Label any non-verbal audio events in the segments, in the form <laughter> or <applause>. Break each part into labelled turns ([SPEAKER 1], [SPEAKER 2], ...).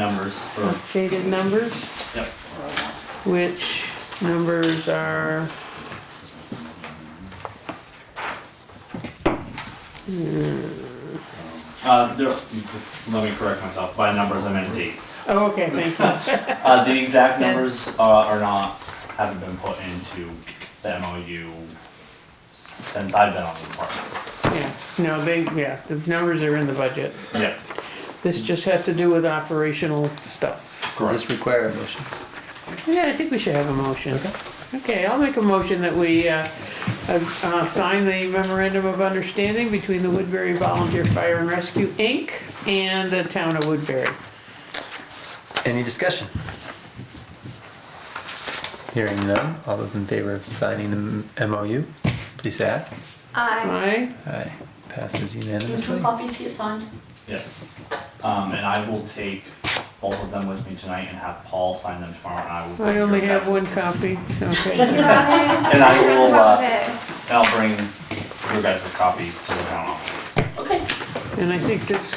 [SPEAKER 1] numbers for,
[SPEAKER 2] updated numbers,
[SPEAKER 1] yep,
[SPEAKER 2] which numbers are.
[SPEAKER 1] uh, there, let me correct myself, by numbers I meant dates.
[SPEAKER 2] Oh, okay, thank you.
[SPEAKER 1] Uh, the
[SPEAKER 2] <laughs>
[SPEAKER 1] exact numbers, uh, are not, haven't been put into the MOU since I've been on the department.
[SPEAKER 2] Yeah, no, they, yeah, the numbers are in the budget.
[SPEAKER 1] Yep,
[SPEAKER 2] This just has to do with operational stuff.
[SPEAKER 3] Does
[SPEAKER 1] correct.
[SPEAKER 3] this require a motion?
[SPEAKER 2] Yeah, I think we should have a motion. Okay, I'll make a motion that we, uh, uh, uh, sign the memorandum of understanding between the Woodbury Volunteer Fire and Rescue, Inc. and the town of Woodbury.
[SPEAKER 3] Any discussion? Hearing none, all those in favor of signing the M- MOU, please say aye.
[SPEAKER 4] Aye.
[SPEAKER 2] Aye,
[SPEAKER 3] Aye, passes
[SPEAKER 4] Can two
[SPEAKER 3] unanimously.
[SPEAKER 4] copies get signed?
[SPEAKER 1] Yes, um, and I will take both of them with me tonight and have Paul sign them tomorrow and I will. bring
[SPEAKER 2] I only
[SPEAKER 1] your
[SPEAKER 2] have one
[SPEAKER 1] guys'-
[SPEAKER 2] copy, okay.
[SPEAKER 1] And
[SPEAKER 2] <laughs>
[SPEAKER 1] I will, uh, I'll bring your guys' copy to the town office.
[SPEAKER 4] Okay,
[SPEAKER 2] And I think this,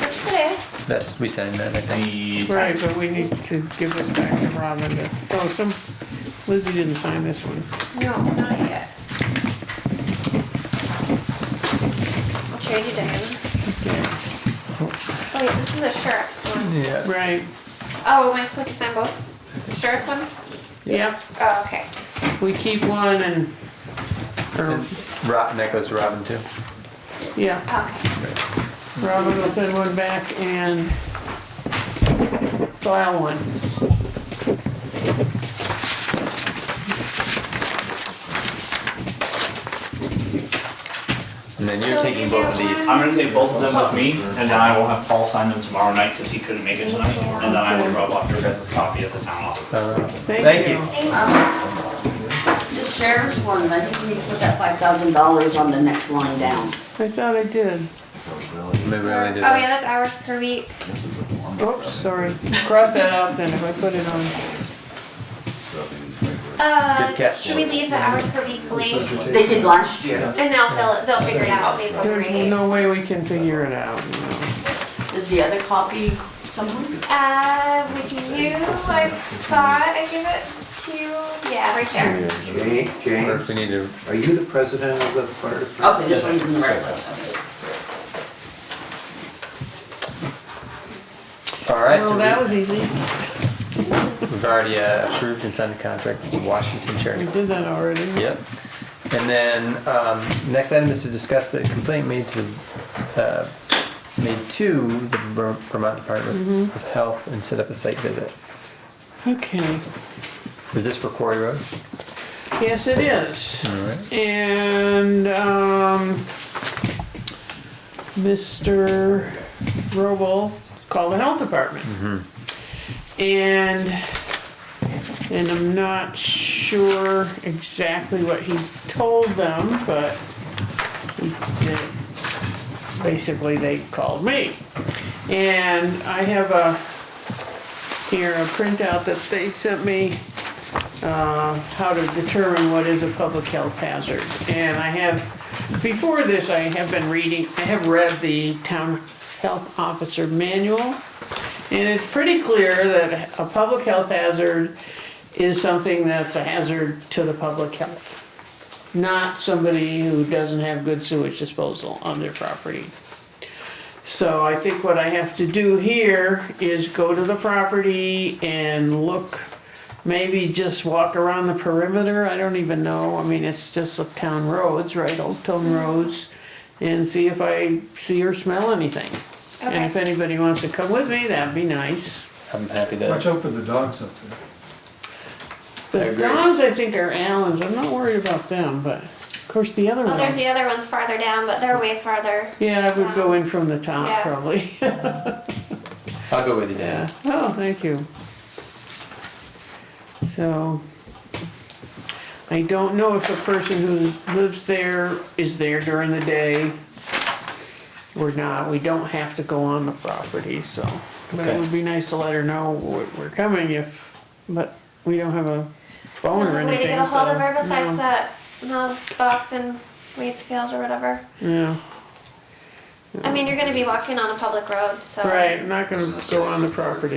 [SPEAKER 4] that's today.
[SPEAKER 3] That's, we signed that, I think.
[SPEAKER 1] The.
[SPEAKER 2] right, but we need to give this back to Robin to, oh, some, Lizzie didn't sign this one.
[SPEAKER 4] No, not yet. I'll trade you down.
[SPEAKER 2] Okay.
[SPEAKER 4] Oh wait, this is the sheriff's one.
[SPEAKER 3] Yeah.
[SPEAKER 2] Right,
[SPEAKER 4] Oh, am I supposed to sign both? Sheriff ones?
[SPEAKER 2] yep,
[SPEAKER 4] Oh, okay.
[SPEAKER 2] we keep one and, or,
[SPEAKER 3] Rob, and that goes to Robin too.
[SPEAKER 2] yeah.
[SPEAKER 4] Okay.
[SPEAKER 2] Robin will send one back and file one.
[SPEAKER 3] And then you're taking both of these.
[SPEAKER 1] I'm gonna take both of them with me, and then I will have Paul sign them tomorrow night, cause he couldn't make it tonight, and then I will drop off your guys' copy at the town office.
[SPEAKER 3] So, Robin.
[SPEAKER 2] Thank
[SPEAKER 3] Thank
[SPEAKER 2] you.
[SPEAKER 5] The sheriff's one, I think we need to put that five thousand dollars on the next line down.
[SPEAKER 2] I thought I did.
[SPEAKER 3] Maybe we only
[SPEAKER 4] Oh
[SPEAKER 3] did
[SPEAKER 4] yeah,
[SPEAKER 3] that.
[SPEAKER 4] that's hours per week.
[SPEAKER 2] Oops, sorry. Cross that out then if I put it on.
[SPEAKER 3] Good
[SPEAKER 4] Uh,
[SPEAKER 3] catch.
[SPEAKER 4] should we leave the hours per week blank?
[SPEAKER 5] They did last year,
[SPEAKER 4] And they'll fill it, they'll figure it out based on the
[SPEAKER 2] There's
[SPEAKER 4] rate.
[SPEAKER 2] no way we can figure it out.
[SPEAKER 5] is the other copy somewhere?
[SPEAKER 4] Uh, with you, I thought I give it to, yeah, right there.
[SPEAKER 6] Jane,
[SPEAKER 3] Or
[SPEAKER 6] Jane,
[SPEAKER 3] if we need to,
[SPEAKER 6] are you the president of the fire department?
[SPEAKER 5] Okay, this one's in the right place, okay.
[SPEAKER 3] all right,
[SPEAKER 2] Well, that
[SPEAKER 3] so
[SPEAKER 2] was easy.
[SPEAKER 3] we- we've already uh, approved and signed the contract with Washington Charity.
[SPEAKER 2] We did that already.
[SPEAKER 3] Yep. And then, um, next item is to discuss the complaint made to, the, uh, made to the Ver- Vermont Department of Health and set up a site visit.
[SPEAKER 2] Okay,
[SPEAKER 3] Is this for Quarry Road?
[SPEAKER 2] yes it is.
[SPEAKER 3] Alright.
[SPEAKER 2] And, um, Mr. Robel called the health department. And, and I'm not sure exactly what he told them, but he did. Basically, they called me. And I have a, here, a printout that they sent me uh, how to determine what is a public health hazard. And I have, before this, I have been reading, I have read the town health officer manual. And it's pretty clear that a public health hazard is something that's a hazard to the public health. Not somebody who doesn't have good sewage disposal on their property. So I think what I have to do here is go to the property and look, maybe just walk around the perimeter, I don't even know, I mean, it's just up town roads, right, Old
[SPEAKER 4] Mm-hmm.
[SPEAKER 2] Town Roads, and see if I see or smell anything. And if anybody wants to come with me, that'd be nice.
[SPEAKER 3] I'm happy
[SPEAKER 7] Watch
[SPEAKER 3] to,
[SPEAKER 7] out for the dogs up there.
[SPEAKER 3] I
[SPEAKER 2] The
[SPEAKER 3] agree.
[SPEAKER 2] dogs, I think, are Allen's, I'm not worried about them, but, of course, the other
[SPEAKER 4] Well, there's
[SPEAKER 2] one.
[SPEAKER 4] the other ones farther down, but they're way farther.
[SPEAKER 2] Yeah, I would go in from the top,
[SPEAKER 4] Yeah. <laughs>
[SPEAKER 2] probably,
[SPEAKER 3] I'll go with you, Dan.
[SPEAKER 2] yeah, oh, thank you. So, I don't know if the person who lives there is there during the day or not. We don't have to go on the property, so. But it would be nice to let her know we're we're coming if, but we don't have a phone or
[SPEAKER 4] Another way to
[SPEAKER 2] anything,
[SPEAKER 4] get a hold of
[SPEAKER 2] so,
[SPEAKER 4] her
[SPEAKER 2] no.
[SPEAKER 4] besides that the box in Waitsfield or whatever.
[SPEAKER 2] Yeah,
[SPEAKER 4] I mean, you're going to be walking on a public road, so.
[SPEAKER 2] right, I'm not gonna go on the property.